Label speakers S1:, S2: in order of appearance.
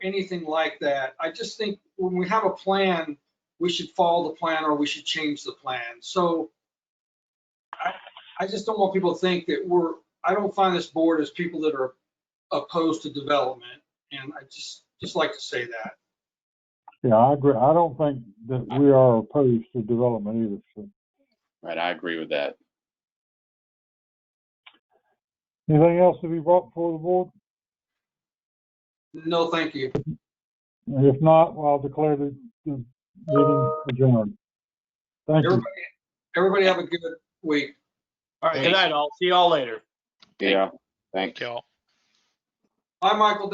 S1: anything like that. I just think when we have a plan, we should follow the plan or we should change the plan. So I, I just don't want people to think that we're, I don't find this board as people that are opposed to development. And I just, just like to say that.
S2: Yeah, I agree. I don't think that we are opposed to development either. So,
S3: Right, I agree with that.
S2: anything else to be brought before the board?
S1: No, thank you.
S2: If not, I'll declare the, the meeting adjourned. Thank you.
S1: Everybody, everybody have a good week.
S4: All right, good night all. See y'all later.
S3: Yeah, thanks.
S4: Y'all.
S1: Bye, Michael.